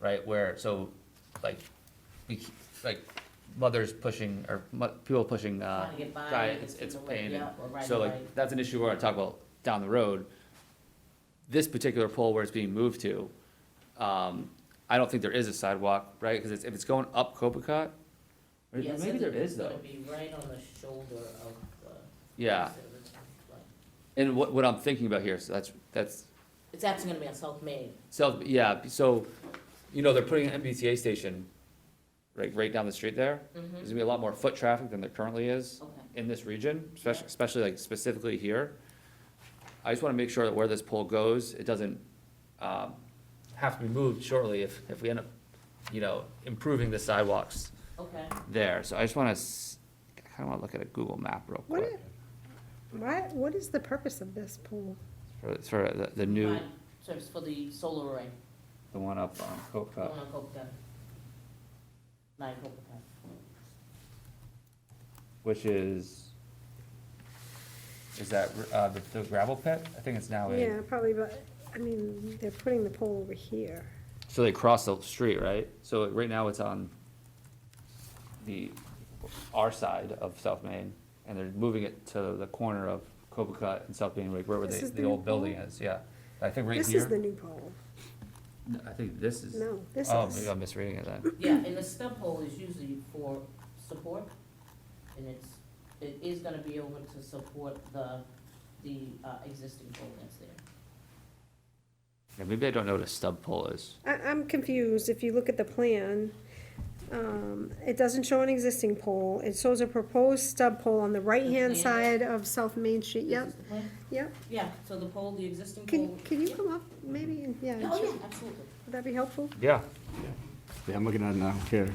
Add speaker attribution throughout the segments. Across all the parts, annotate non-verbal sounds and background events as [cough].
Speaker 1: right? Where, so, like, we, c- like, mothers pushing, or mu- people pushing, uh.
Speaker 2: Trying to get by,
Speaker 1: diet,
Speaker 2: get
Speaker 1: it's, it's
Speaker 2: people to wake
Speaker 1: pain,
Speaker 2: you
Speaker 1: and
Speaker 2: up, or right,
Speaker 1: so like,
Speaker 2: right.
Speaker 1: that's an issue we're gonna talk about down the road. This particular pole where it's being moved to, um, I don't think there is a sidewalk, right? Cause it's, if it's going up Copacabana, or
Speaker 2: Yes, I
Speaker 1: maybe there
Speaker 2: think it's
Speaker 1: is though.
Speaker 2: gonna be right on the shoulder of the.
Speaker 1: Yeah, and what, what I'm thinking about here, so that's, that's,
Speaker 2: It's actually gonna be on South Main,
Speaker 1: so, yeah, so, you know, they're putting an MBTA station right, right down the street there.
Speaker 2: Mm-hmm.
Speaker 1: There's gonna be a lot more foot traffic than there currently is
Speaker 2: okay.
Speaker 1: in this region, especially, especially like specifically here. I just wanna make sure that where this pole goes, it doesn't, um, have to be moved shortly if, if we end up, you know, improving the sidewalks
Speaker 2: Okay,
Speaker 1: there. So I just wanna, s- I kinda wanna look at a Google map real
Speaker 3: What,
Speaker 1: quick
Speaker 3: why, what is the purpose of this pool?
Speaker 1: for, for the, the new,
Speaker 2: fine, so it's for the solar array,
Speaker 1: the one up on
Speaker 2: the
Speaker 1: Copa.
Speaker 2: one on Copacabana. Nine Copacabana,
Speaker 1: which is, is that, uh, the the gravel pit? I think it's now
Speaker 3: Yeah,
Speaker 1: a.
Speaker 3: probably, but, I mean, they're putting the pole over here.
Speaker 1: So they cross the street, right? So right now it's on the, our side of South Main, and they're moving it to the corner of Copacut and South Main, like where
Speaker 3: This
Speaker 1: the,
Speaker 3: is
Speaker 1: the
Speaker 3: the new
Speaker 1: old building
Speaker 3: pole?
Speaker 1: is, yeah. I think right
Speaker 3: This is the
Speaker 1: here,
Speaker 3: new pole.
Speaker 1: I think this is,
Speaker 3: No, this
Speaker 1: oh, maybe
Speaker 3: is,
Speaker 1: I'm misreading it then.
Speaker 2: yeah, and the stump hole is usually for support, and it's, it is gonna be able to support the, the, uh, existing pole that's there.
Speaker 1: Yeah, maybe I don't know what a stub pole is.
Speaker 3: I, I'm confused. If you look at the plan, um, it doesn't show an existing pole. It shows a proposed stub pole on the right-hand
Speaker 2: Mhm.
Speaker 3: side of South Main Street.
Speaker 2: Is
Speaker 3: Yep,
Speaker 2: this the plan?
Speaker 3: yep.
Speaker 2: Yeah, so the pole, the existing
Speaker 3: Can,
Speaker 2: pole.
Speaker 3: can you
Speaker 2: yeah.
Speaker 3: come up, maybe, and- yeah,
Speaker 2: Oh,
Speaker 3: sure.
Speaker 2: yeah, absolutely.
Speaker 3: would that be helpful?
Speaker 1: Yeah,
Speaker 4: Yeah, I'm looking at it now, here.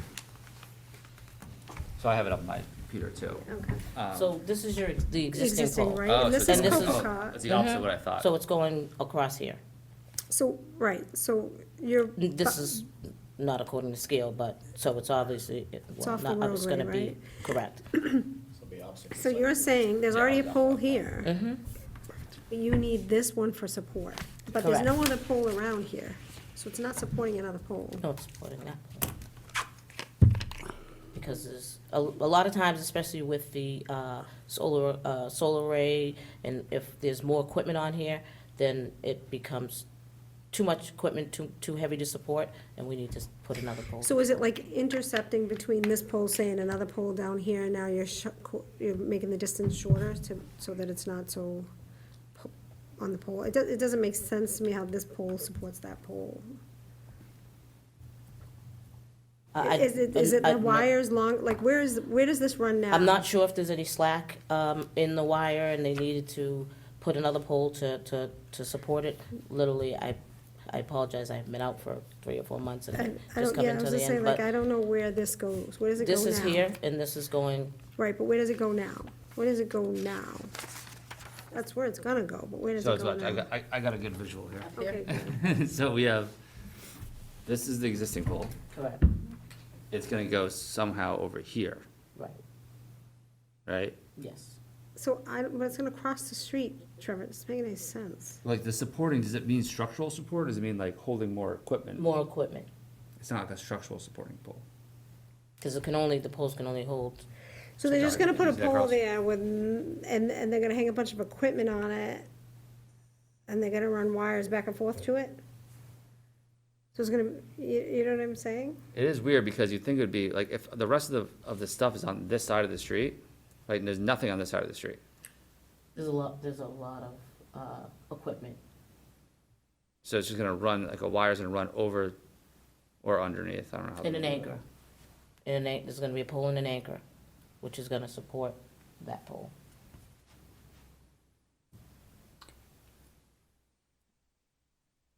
Speaker 1: so I have it on my computer too.
Speaker 3: Okay.
Speaker 1: Um,
Speaker 2: So this is your, the existing
Speaker 3: Existing,
Speaker 2: pole.
Speaker 3: right?
Speaker 1: oh,
Speaker 3: And
Speaker 1: so
Speaker 3: this
Speaker 1: it's
Speaker 3: is Mm-hmm.
Speaker 1: the-
Speaker 2: this is-
Speaker 1: oh,
Speaker 3: Copacabana.
Speaker 1: That's the opposite
Speaker 2: Mhm.
Speaker 1: of what I thought.
Speaker 2: So it's going across here.
Speaker 3: So, right, so you're.
Speaker 2: This is not according to scale, but, so it's obviously, well,
Speaker 3: off the
Speaker 2: not, it's
Speaker 3: roadway,
Speaker 2: gonna be,
Speaker 3: right?
Speaker 2: correct.
Speaker 3: So you're saying there's already a pole here?
Speaker 1: Mm-hmm.
Speaker 3: But you need this one for support, but there's no other pole around here, so it's not supporting another pole.
Speaker 2: No, it's supporting that. Because there's, a, a lot of times, especially with the, uh, solar, uh, solar array, and if there's more equipment on here, then it becomes too much equipment, too, too heavy to support, and we need to s- put another pole.
Speaker 3: So is it like intercepting between this pole, say, and another pole down here, and now you're sh- co- you're making the distance shorter to, so that it's not so po- on the pole? It does, it doesn't make sense to me how this pole supports that pole.
Speaker 2: Uh, I- I-
Speaker 3: Is it, is it
Speaker 2: I'm
Speaker 3: the
Speaker 2: not-
Speaker 3: wires long, like, where is, where does this run now?
Speaker 2: I'm not sure if there's any slack um, in the wire, and they needed to put another pole to, to, to support it. Literally, I, I apologize, I've been out for three or four months
Speaker 3: I
Speaker 2: and
Speaker 3: I
Speaker 2: just
Speaker 3: don't, yeah, I
Speaker 2: coming
Speaker 3: was
Speaker 2: to the
Speaker 3: just saying,
Speaker 2: end,
Speaker 3: like, I
Speaker 2: but
Speaker 3: don't know where this goes, where does it go now?
Speaker 2: this is here, and this is going,
Speaker 3: Right, but where does it go now? Where does it go now? That's where it's gonna go, but where does
Speaker 1: So
Speaker 3: it
Speaker 1: it's
Speaker 3: go
Speaker 1: what, I
Speaker 3: now?
Speaker 1: got, I, I got a good visual here. [laughs]
Speaker 3: Okay, good.
Speaker 1: So we have, this is the existing pole.
Speaker 2: correct,
Speaker 1: It's gonna go somehow over here,
Speaker 2: right,
Speaker 1: right?
Speaker 2: yes.
Speaker 3: so I, don't- but it's gonna cross the street, Trevor, it doesn't make any sense.
Speaker 1: Like the supporting, does it mean structural support? Does it mean like holding more equipment?
Speaker 2: More equipment,
Speaker 1: It's not like a structural supporting pole.
Speaker 2: because it can only, the poles can only hold,
Speaker 3: So they're just
Speaker 1: now
Speaker 3: gonna
Speaker 1: you
Speaker 3: put a
Speaker 1: can use that
Speaker 3: pole
Speaker 1: cross.
Speaker 3: there with, n- and, and they're gonna hang a bunch of equipment on it, and they're gonna run wires back and forth to it? So it's gonna, you, you know what I'm saying?
Speaker 1: It is weird because you'd think it would be, like, if the rest of the, of the stuff is on this side of the street, right, and there's nothing on this side of the street.
Speaker 2: there's a lot, there's a lot of uh, equipment.
Speaker 1: So it's just gonna run, like a wire's gonna run over or underneath, I don't know how.
Speaker 2: In
Speaker 1: they
Speaker 2: an
Speaker 1: do
Speaker 2: anchor. In an, an- there's gonna be a pole and an anchor, which is gonna support that pole.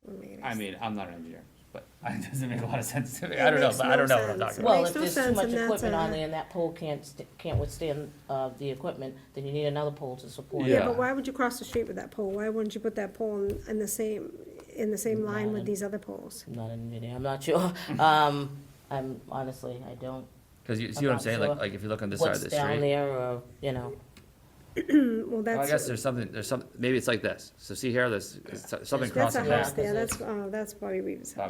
Speaker 1: that. I mean, I'm not an engineer, but [laughs] it doesn't make a lot of sense to me. I
Speaker 3: It
Speaker 1: don't know,
Speaker 3: makes
Speaker 1: but I
Speaker 3: no
Speaker 1: don't know what I'm talking
Speaker 3: sense.
Speaker 1: about.
Speaker 2: Well,
Speaker 3: makes
Speaker 2: if
Speaker 3: no
Speaker 2: there's too
Speaker 3: sense,
Speaker 2: much
Speaker 3: and that's
Speaker 2: equipment on
Speaker 3: a-
Speaker 2: there and that pole can't, st- can't withstand, uh, the equipment, then you need another pole to support
Speaker 1: Yeah.
Speaker 2: it.
Speaker 3: Yeah, but why would you cross the street with that pole? Why wouldn't you put that pole in, in the same, in the same line with these other poles?
Speaker 2: I'm not an engineer, I'm not sure. [laughs] Um, I'm, honestly, I don't,
Speaker 1: Cause you see
Speaker 2: I'm
Speaker 1: what I'm
Speaker 2: not
Speaker 1: saying, like,
Speaker 2: sure
Speaker 1: like if you look on this side of
Speaker 2: what's
Speaker 1: the
Speaker 2: down
Speaker 1: street.
Speaker 2: there or, you know,
Speaker 3: Well,
Speaker 1: Well, I guess
Speaker 3: that's,
Speaker 1: there's something, there's some, maybe it's like this. So see here, there's, there's something
Speaker 2: There's-
Speaker 3: that's
Speaker 1: crossing
Speaker 3: a
Speaker 1: there.
Speaker 3: house there,
Speaker 2: Because
Speaker 3: that's, uh, that's Bobby Reeves' house.